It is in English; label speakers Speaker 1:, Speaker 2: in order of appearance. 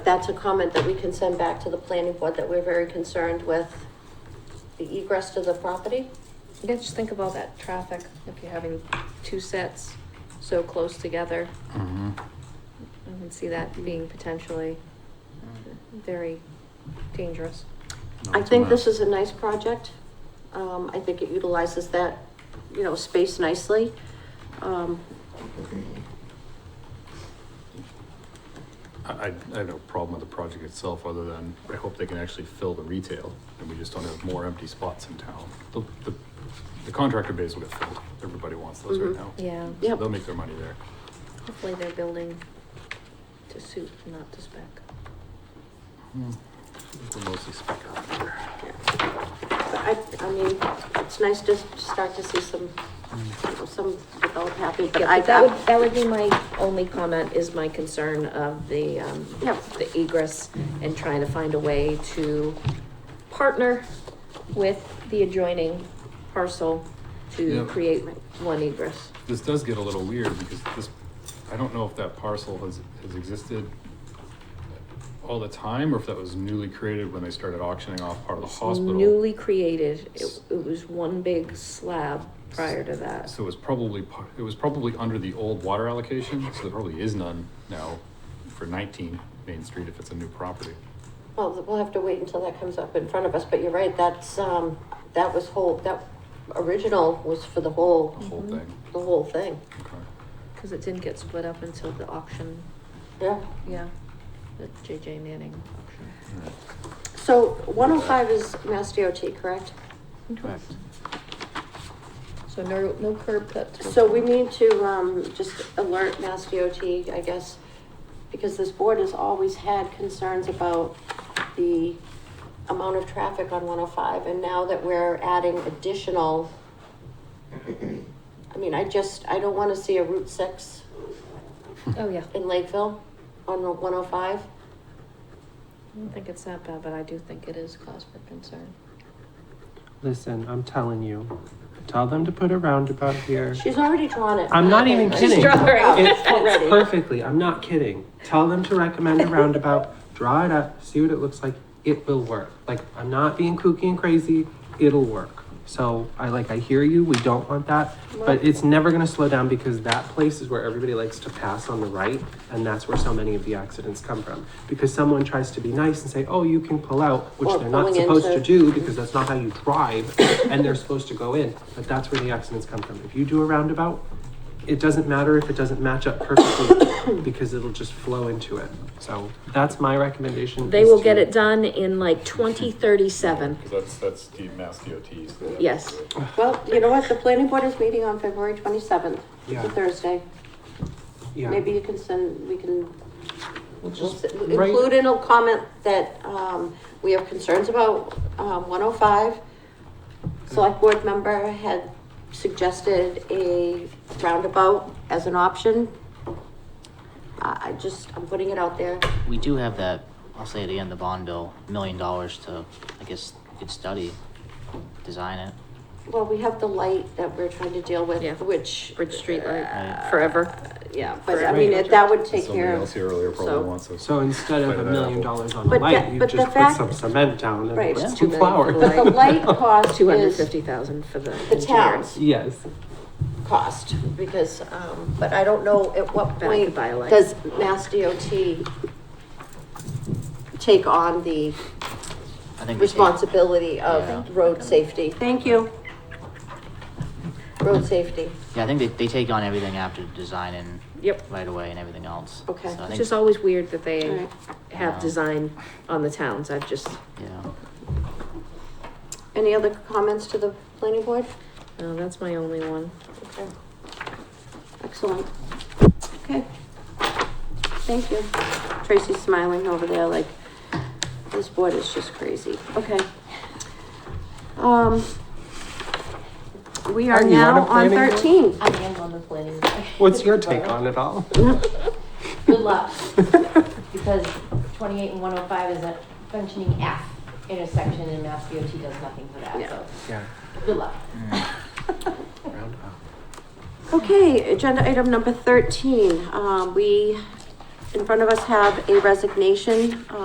Speaker 1: that's a comment that we can send back to the planning board that we're very concerned with the egress to the property.
Speaker 2: Yeah, just think about that traffic, if you're having two sets so close together, I can see that being potentially very dangerous.
Speaker 1: I think this is a nice project. Um, I think it utilizes that, you know, space nicely. Um,
Speaker 3: I, I I have no problem with the project itself, other than I hope they can actually fill the retail, and we just don't have more empty spots in town. The, the, the contractor base will get filled, everybody wants those right
Speaker 1: Mhm.
Speaker 3: now.
Speaker 2: Mm-hmm. Yeah,
Speaker 3: So
Speaker 1: Yep.
Speaker 3: They'll make their money there.
Speaker 2: hopefully they're building to suit, not to spec.
Speaker 3: Hmm. We're mostly spec out there.
Speaker 1: But I, I mean, it's nice to start to see some,
Speaker 3: Hmm.
Speaker 1: you know, some develop happy, but
Speaker 2: Yeah,
Speaker 1: I,
Speaker 2: but that
Speaker 1: I,
Speaker 2: would, that would be my only comment, is my concern of the, um,
Speaker 1: Yeah.
Speaker 2: the egress and trying to find a way to partner with the adjoining parcel to
Speaker 3: Yeah.
Speaker 2: create one egress.
Speaker 3: This does get a little weird, because this, I don't know if that parcel has, has existed all the time, or if that was newly created when they started auctioning off part of the hospital.
Speaker 2: Newly created, it, it was one big slab prior to that.
Speaker 3: So it was probably, par- it was probably under the old water allocation, so there probably is none now for nineteen Main Street if it's a new property.
Speaker 1: well, we'll have to wait until that comes up in front of us, but you're right, that's, um, that was whole, that original was for the whole,
Speaker 3: The whole
Speaker 2: Mhm.
Speaker 3: thing,
Speaker 1: the whole thing,
Speaker 3: okay.
Speaker 2: Cause it didn't get split up until the auction,
Speaker 1: yeah.
Speaker 2: yeah, the JJ Manning auction.
Speaker 1: So one oh five is Mass DOT, correct?
Speaker 2: Correct. So no, no curb cuts.
Speaker 1: So we need to, um, just alert Mass DOT, I guess, because this board has always had concerns about the amount of traffic on one oh five, and now that we're adding additional, I mean, I just, I don't wanna see a Route six
Speaker 2: Oh, yeah.
Speaker 1: in Lakeville on one oh five.
Speaker 2: I don't think it's that bad, but I do think it is cause for concern.
Speaker 4: Listen, I'm telling you. Tell them to put a roundabout here.
Speaker 1: She's already drawn it.
Speaker 4: I'm not even
Speaker 1: She's
Speaker 4: kidding.
Speaker 2: drawing
Speaker 4: It fits
Speaker 1: already.
Speaker 4: perfectly. I'm not kidding. Tell them to recommend a roundabout. Draw it up. See what it looks like. It will work. Like I'm not being kooky and crazy. It'll work. So I like I hear you. We don't want that, but it's never gonna slow down because that place is where everybody likes to pass on the right, and that's where so many of the accidents come from. Because someone tries to be nice and say, "Oh, you can pull out," which
Speaker 1: Or
Speaker 4: they're not
Speaker 1: pulling
Speaker 4: supposed to
Speaker 1: into-
Speaker 4: do do because that's not how you drive and they're supposed to go in. But that's where the accidents come from. If you do a roundabout, it doesn't matter if it doesn't match up perfectly because it'll just flow into it. So that's my recommendation.
Speaker 2: They
Speaker 4: is
Speaker 2: will
Speaker 4: to-
Speaker 2: get it done in like twenty thirty-seven.
Speaker 3: Cause that's, that's the Mass DOT's.
Speaker 2: Yes.
Speaker 1: Well, you know what, the planning board is meeting on February twenty-seventh, it's
Speaker 4: Yeah.
Speaker 1: a Thursday.
Speaker 4: Yeah.
Speaker 1: Maybe you can send, we can
Speaker 4: We'll
Speaker 1: We'll
Speaker 4: just
Speaker 1: s-
Speaker 4: write-
Speaker 1: Include in a comment that, um, we have concerns about, um, one oh five. Select board member had suggested a roundabout as an option. I, I just, I'm putting it out there.
Speaker 5: We do have that, I'll say it again, the bond bill, million dollars to, I guess, you could study, design it.
Speaker 1: Well, we have the light that we're trying to deal with,
Speaker 2: Yeah.
Speaker 1: which. uh,
Speaker 2: Bridge Street
Speaker 5: Right.
Speaker 2: Light, forever.
Speaker 1: Yeah, but I mean, it- that would take care
Speaker 3: Somebody
Speaker 1: of.
Speaker 3: else here earlier
Speaker 1: so-
Speaker 3: probably wants us.
Speaker 4: So instead of
Speaker 3: Bite
Speaker 4: a
Speaker 3: of that
Speaker 4: million
Speaker 3: apple.
Speaker 4: dollars on a
Speaker 1: But
Speaker 4: light,
Speaker 1: that-
Speaker 4: you
Speaker 1: but the
Speaker 4: just put
Speaker 1: fact-
Speaker 4: some cement down and
Speaker 1: Right.
Speaker 4: put
Speaker 5: Yeah.
Speaker 4: some flour.
Speaker 1: But the light cost
Speaker 2: Two hundred
Speaker 1: is
Speaker 2: fifty thousand for the
Speaker 1: the
Speaker 2: engineers.
Speaker 1: town's
Speaker 4: Yes.
Speaker 1: cost, because, um, but I don't know at what
Speaker 2: But I could
Speaker 1: point
Speaker 2: buy a light.
Speaker 1: does Mass DOT take on the
Speaker 5: I think we take-
Speaker 1: responsibility
Speaker 5: Yeah.
Speaker 1: of road safety? Thank you. Road safety,
Speaker 5: Yeah, I think they, they take on everything after design and
Speaker 2: Yep.
Speaker 5: right away and everything else.
Speaker 1: Okay.
Speaker 5: So I
Speaker 2: It's
Speaker 5: think-
Speaker 2: just always weird that they
Speaker 1: Right.
Speaker 2: have design on the towns. I've just,
Speaker 5: Yeah,
Speaker 1: any other comments to the planning board?
Speaker 2: no, oh, that's my only one.
Speaker 1: Okay. Excellent. Okay. Thank you. Tracy's smiling over there like, this board is just crazy. Okay. Um, we
Speaker 4: Are
Speaker 1: are
Speaker 4: you on
Speaker 1: now
Speaker 4: a
Speaker 1: on
Speaker 4: planning board?
Speaker 1: thirteen.
Speaker 6: I am on the planning board.
Speaker 4: What's your take on it all?
Speaker 6: Good luck. Because twenty-eight and one oh five is a functioning F intersection and Mass DOT does nothing for that, so
Speaker 4: Yeah.
Speaker 6: good luck.
Speaker 4: Round up.
Speaker 1: Okay, agenda item number thirteen, um, we in front of us have a resignation,